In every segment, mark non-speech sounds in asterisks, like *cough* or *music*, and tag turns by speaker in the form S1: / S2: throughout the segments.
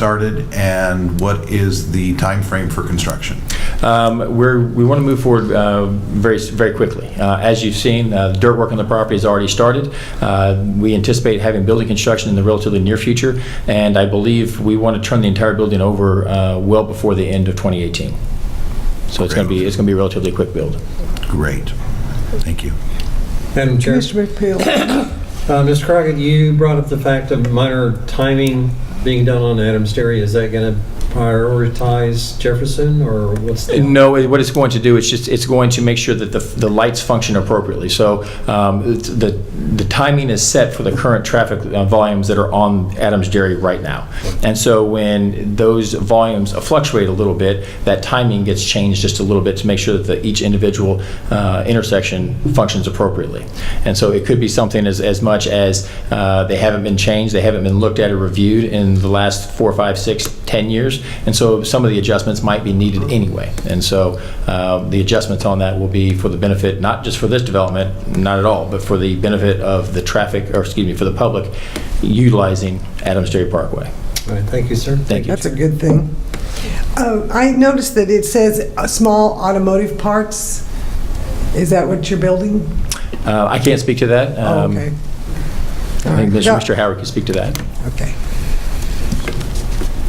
S1: started and what is the timeframe for construction?
S2: Um, We're, we want to move forward uh, very, very quickly. Uh, As you've seen, uh, dirt work on the property has already started. Uh, We anticipate having building construction in the relatively near future, and I believe we want to turn the entire building over uh, well before the end of 2018. So it's going to be, it's going to be a relatively quick build.
S1: Great. Thank you.
S3: Madam Chair,
S4: Commissioner McPhail.
S3: uh, Mr. Crockett, you brought up the fact of minor timing being done on Adams Dairy. Is that going to prioritize Jefferson, or what's the?
S2: No, it- what it's going to do, it's just, it's going to make sure that the, the lights function appropriately. So um, it's- the, the timing is set for the current traffic uh, volumes that are on Adams Dairy right now. And so when those volumes fluctuate a little bit, that timing gets changed just a little bit to make sure that the- each individual uh, intersection functions appropriately. And so it could be something as, as much as uh, they haven't been changed, they haven't been looked at or reviewed in the last four, five, six, 10 years. And so some of the adjustments might be needed anyway. And so uh, the adjustments on that will be for the benefit, not just for this development, not at all, but for the benefit of the traffic, or excuse me, for the public utilizing Adams Dairy Parkway.
S3: All right, Thank you, sir.
S2: Thank you.
S4: *coughs* That's a good thing. Uh, I noticed that it says uh, small automotive parts. Is that what you're building?
S2: Uh, I can't speak to that.
S4: Oh,
S2: Um,
S4: okay.
S2: I think
S4: All right.
S2: Mr. Howard can speak to that.
S4: Okay.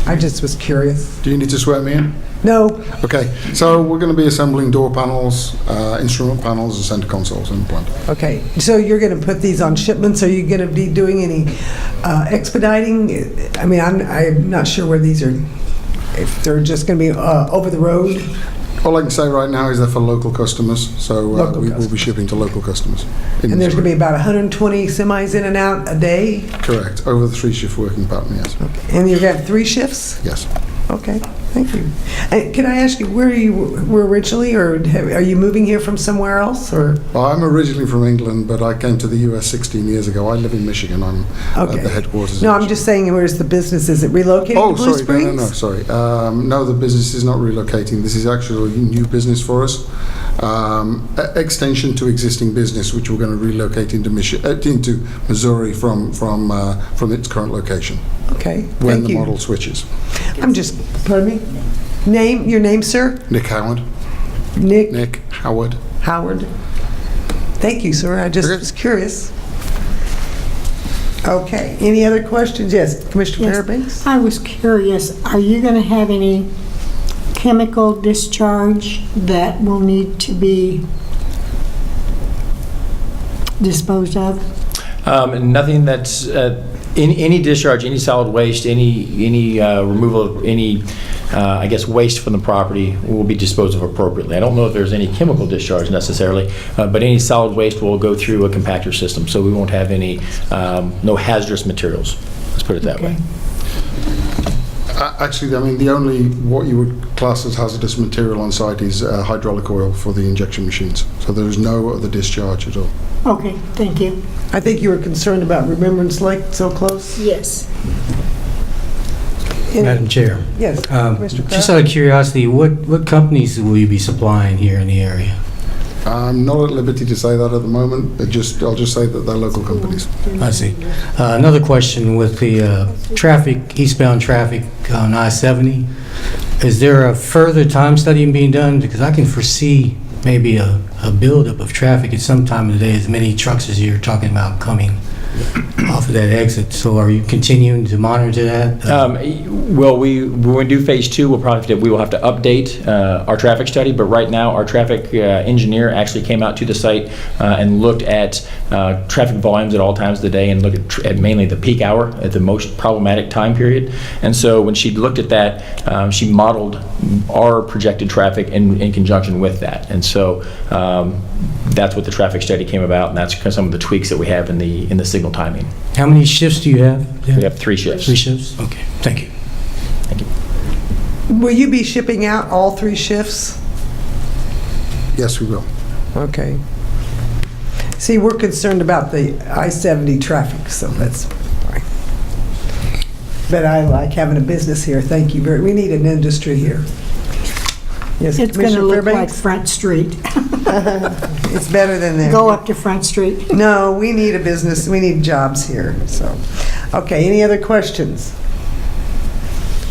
S4: I just was curious.
S5: Do you need to swear me in?
S4: No,
S5: Okay, so we're going to be assembling door panels, uh, instrument panels, and center consoles in the plant.
S4: okay. So you're going to put these on shipments? Are you going to be doing any uh, expediting? I mean, I'm, I'm not sure where these are, if they're just going to be uh, over the road?
S5: All I can say right now is they're for local customers, so uh,
S4: Local
S5: we will be
S4: customers.
S5: shipping to local customers. in
S4: And there's going to be
S5: Missouri.
S4: about 120 semis in and out a day?
S5: Correct, over the three-shift working pattern, yes.
S4: And you're going to have three shifts?
S5: Yes.
S4: Okay, thank you. And Can I ask you, where you were originally, or have- are you moving here from somewhere else, or?
S5: Well, I'm originally from England, but I came to the US 16 years ago. I live in Michigan, I'm
S4: Okay.
S5: at Uh, the headquarters. in
S4: No, I'm
S5: Michigan.
S4: just saying, where's the business? Is it relocated
S5: Oh,
S4: to Blue
S5: sorry, no, no, no,
S4: Springs?
S5: sorry. Um, no, the business is not relocating. This is actually new business for us. Um, e- extension to existing business, which we're going to relocate into Michi- uh, into Missouri from from uh, from its current location
S4: Okay,
S5: when
S4: thank
S5: the
S4: you.
S5: model switches.
S4: I'm just, pardon me? Name, your name, sir?
S5: Nick Howard,
S4: Nick
S5: Nick Howard.
S4: Howard. Thank you, sir, I just
S5: Okay.
S4: was curious. Okay, any other questions? Yes, Commissioner
S6: Yes.
S4: Fairbanks?
S6: I was curious, are you going to have any chemical discharge that will need to be disposed of?
S2: Um, Nothing that's, uh, any any discharge, any solid waste, any, any uh, removal of any, uh, I guess, waste from the property will be disposed of appropriately. I don't know if there's any chemical discharge necessarily, uh, but any solid waste will go through a compactor system, so we won't have any, um, no hazardous materials, let's put it that way.
S5: A- Uh, Actually, I mean, the only what you would class as hazardous material on site is uh, hydraulic oil for the injection machines. So there is no other discharge at all.
S6: Okay, thank you.
S4: I think you were concerned about Remembrance Lake so close.
S6: Yes.
S4: Any-
S7: Madam Chair,
S4: Yes,
S7: um,
S4: Commissioner Kraft?
S7: just out of curiosity, what, what companies will you be supplying here in the area?
S5: I'm not at liberty to say that at the moment. It just, I'll just say that they're local companies.
S7: I see. Uh, Another question with the uh, traffic, eastbound traffic on I-70, is there a further time study being done? Because I can foresee maybe a a buildup of traffic at some time of the day, as many trucks as you're talking about coming off of that exit. So are you continuing to monitor that?
S2: Um, Well, we, when we do Phase 2, we'll probably, we will have to update uh, our traffic study, but right now, our traffic uh, engineer actually came out to the site uh, and looked at uh, traffic volumes at all times of the day and looked at tr- at mainly the peak hour, at the most problematic time period. And so when she looked at that, um, she modeled our projected traffic in in conjunction with that. And so um, that's what the traffic study came about, and that's kind of some of the tweaks that we have in the, in the signal timing.
S7: How many shifts do you have?
S2: We have three shifts.
S7: Three shifts? Okay, thank you.
S4: Will you be shipping out all three shifts?
S5: Yes, we will.
S4: Okay. See, we're concerned about the I-70 traffic, so that's, fine. but I like having a business here, thank you very, we need an industry here. Yes,
S6: It's going to
S4: Commissioner
S6: look like
S4: Fairbanks?
S6: Front Street.
S4: It's better than that.
S6: Go up to Front Street.
S4: No, we need a business, we need jobs here, so. Okay, any other questions?